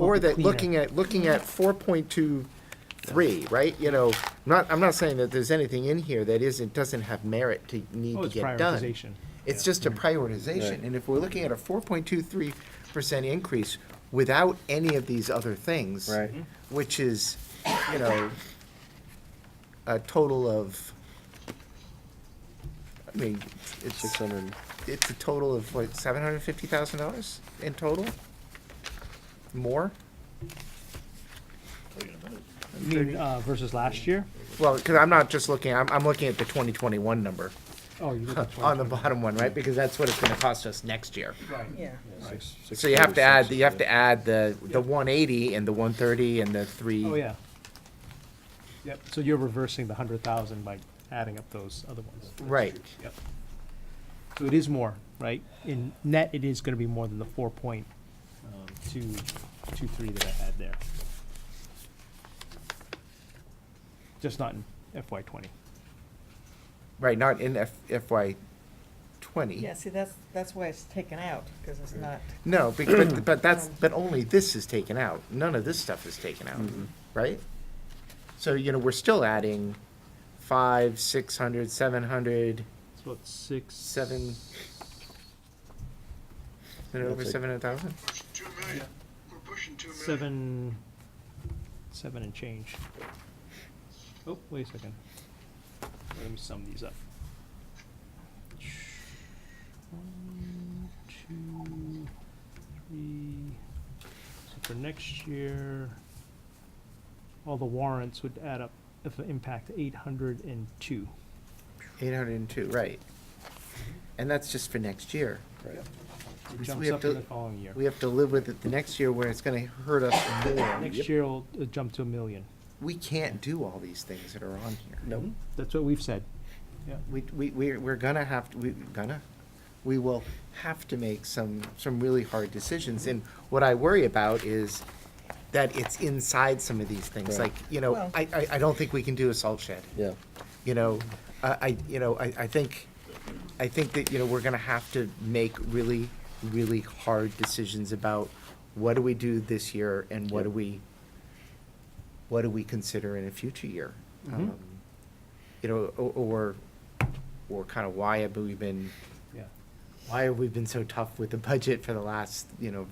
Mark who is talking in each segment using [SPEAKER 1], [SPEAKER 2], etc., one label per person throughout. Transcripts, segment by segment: [SPEAKER 1] Or that
[SPEAKER 2] cleaner.
[SPEAKER 1] looking at, looking at four point two three, right, you know, not, I'm not saying that there's anything in here that isn't, doesn't have merit to need
[SPEAKER 2] Oh,
[SPEAKER 1] to
[SPEAKER 2] it's
[SPEAKER 1] get done.
[SPEAKER 2] prioritization.
[SPEAKER 1] It's just a prioritization, and if we're looking at a four point two three percent increase without any of these other things.
[SPEAKER 3] Right.
[SPEAKER 1] Which is, you know, a total of, I mean,
[SPEAKER 3] Six
[SPEAKER 1] it's,
[SPEAKER 3] hundred.
[SPEAKER 1] it's a total of, what, seven hundred and fifty thousand dollars in total? More?
[SPEAKER 2] You mean, uh, versus last year?
[SPEAKER 1] Well, because I'm not just looking, I'm, I'm looking at the twenty twenty-one number
[SPEAKER 2] Oh, you look at
[SPEAKER 1] on the
[SPEAKER 2] 2020.
[SPEAKER 1] bottom one, right? Because that's what it's gonna cost us next year.
[SPEAKER 4] Yeah,
[SPEAKER 1] So you have to add, you have to add the, the one eighty and the one thirty and the three.
[SPEAKER 2] Oh, yeah. Yep, so you're reversing the hundred thousand by adding up those other ones.
[SPEAKER 1] Right,
[SPEAKER 2] Yep. So it is more, right? In net, it is gonna be more than the four point, um, two, two, three that I had there. Just not in FY twenty.
[SPEAKER 1] right, not in F- FY twenty.
[SPEAKER 4] yeah, see, that's, that's why it's taken out, because it's not,
[SPEAKER 1] No, bec- but, but that's, but only this is taken out. None of this stuff is taken out,
[SPEAKER 2] Mm-hmm.
[SPEAKER 1] right? So, you know, we're still adding five, six hundred, seven hundred,
[SPEAKER 2] It's about six.
[SPEAKER 1] seven. Is it over
[SPEAKER 3] That's like-
[SPEAKER 1] seven hundred thousand?
[SPEAKER 5] Pushing two million. We're pushing two million.
[SPEAKER 2] Seven, seven and change. Oh, wait a second. Let me sum these up. One, two, three. So for next year, all the warrants would add up, if it impact eight hundred and two.
[SPEAKER 1] Eight hundred and two, right. And that's just for next year.
[SPEAKER 2] It
[SPEAKER 4] Mm-hmm.
[SPEAKER 1] So
[SPEAKER 2] jumps
[SPEAKER 1] we have
[SPEAKER 2] up in
[SPEAKER 1] to-
[SPEAKER 2] the following year.
[SPEAKER 1] We have to live with it the next year where it's gonna hurt us more.
[SPEAKER 2] Next year will uh, jump to a million.
[SPEAKER 1] We can't do all these things that are on here.
[SPEAKER 3] Nope.
[SPEAKER 2] That's what we've said.
[SPEAKER 1] We, we, we're, we're gonna have, to. we, gonna, we will have to make some, some really hard decisions. And what I worry about is that it's inside some of these things,
[SPEAKER 3] Right.
[SPEAKER 1] like, you know,
[SPEAKER 4] Well-
[SPEAKER 1] I, I, I don't think we can do a salt shed.
[SPEAKER 3] Yeah.
[SPEAKER 1] You know, I, I, you know, I, I think, I think that, you know, we're gonna have to make really, really hard decisions about what do we do this year and what do we, what do we consider in a future year? Um, You know, o- or, or kind of why have we been,
[SPEAKER 2] Yeah.
[SPEAKER 1] why have we been so tough with the budget for the last, you know,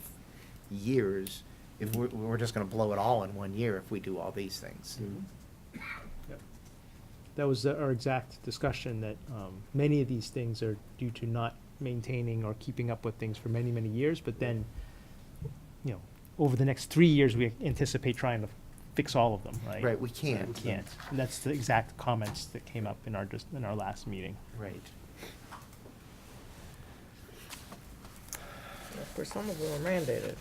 [SPEAKER 1] years? If we're, we're just gonna blow it all in one year if we do all these things.
[SPEAKER 2] That was the- our exact discussion, that um, many of these things are due to not maintaining or keeping up with things for many, many years, but then, you know, over the next three years, we anticipate trying to fix all of them, right?
[SPEAKER 1] Right, we
[SPEAKER 2] We
[SPEAKER 1] can't.
[SPEAKER 2] can't. And that's the exact comments that came up in our, just in our last meeting.
[SPEAKER 1] Right.
[SPEAKER 4] of course, some of them are mandated.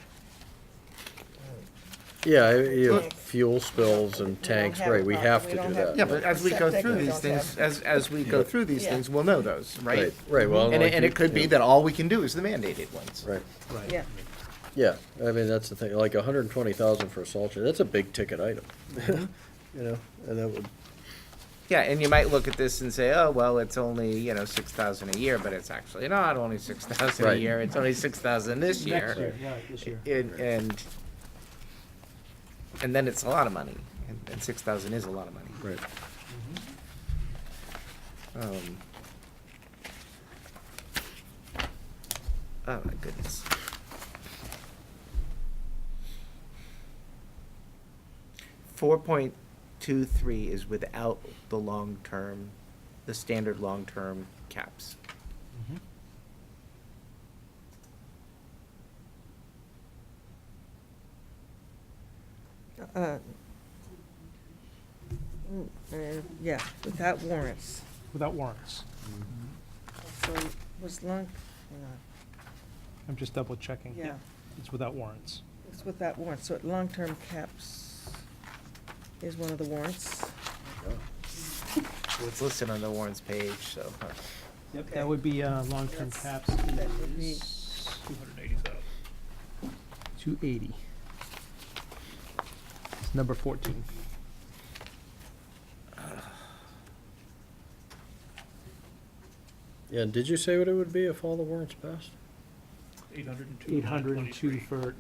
[SPEAKER 3] Yeah, I- you have
[SPEAKER 4] Tanks.
[SPEAKER 3] full spills and
[SPEAKER 4] don't
[SPEAKER 3] tanks,
[SPEAKER 4] have a
[SPEAKER 3] right, we
[SPEAKER 4] problem.
[SPEAKER 3] have
[SPEAKER 4] We
[SPEAKER 3] to
[SPEAKER 4] don't
[SPEAKER 3] do
[SPEAKER 4] have-
[SPEAKER 3] that.
[SPEAKER 1] Yeah, but as we go
[SPEAKER 4] Septic,
[SPEAKER 1] through
[SPEAKER 4] we
[SPEAKER 1] these
[SPEAKER 4] don't
[SPEAKER 1] things,
[SPEAKER 4] have-
[SPEAKER 1] as, as we go through these
[SPEAKER 4] Yeah.
[SPEAKER 1] things, we'll know those, right?
[SPEAKER 3] Right, well.
[SPEAKER 1] And,
[SPEAKER 3] like
[SPEAKER 1] it- and
[SPEAKER 3] you-
[SPEAKER 1] it could be
[SPEAKER 3] yeah,
[SPEAKER 1] that all we can do is the mandated ones.
[SPEAKER 3] Right,
[SPEAKER 2] Right.
[SPEAKER 4] Yeah,
[SPEAKER 3] yeah, I mean, that's the thing, like a hundred and twenty thousand for a salt shed, that's a big ticket item.
[SPEAKER 4] Mm-hmm.
[SPEAKER 3] You know, and that would,
[SPEAKER 1] Yeah, and you might look at this and say, oh, well, it's only, you know, six thousand a year, but it's actually not only six thousand a
[SPEAKER 3] Right.
[SPEAKER 1] year, it's only six thousand this
[SPEAKER 2] Next
[SPEAKER 1] year.
[SPEAKER 2] yeah, this year.
[SPEAKER 1] And, and, and then it's a lot of money, and, and six thousand is a lot of money.
[SPEAKER 3] right,
[SPEAKER 1] Um, Oh, my goodness. Four point two three is without the long-term, the standard long-term caps.
[SPEAKER 2] Mhm.
[SPEAKER 4] uh, mm, uh, yeah, without warrants,
[SPEAKER 2] Without warrants.
[SPEAKER 4] so was long, hang on,
[SPEAKER 2] I'm just double checking.
[SPEAKER 4] yeah,
[SPEAKER 2] It's without warrants.
[SPEAKER 4] it's without warrants, so long-term caps is one of the warrants.
[SPEAKER 1] Well, It's listed on the warrants page, so. huh.
[SPEAKER 2] Yep,
[SPEAKER 4] Okay.
[SPEAKER 2] that would be, uh, long-term
[SPEAKER 4] That's-
[SPEAKER 2] caps
[SPEAKER 4] that would be-
[SPEAKER 2] is. Two hundred and eighty thousand. Two eighty. It's number fourteen.
[SPEAKER 3] yeah, and did you say what it would be if all the warrants passed?
[SPEAKER 2] Eight hundred and two for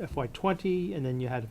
[SPEAKER 2] FY twenty, and then you had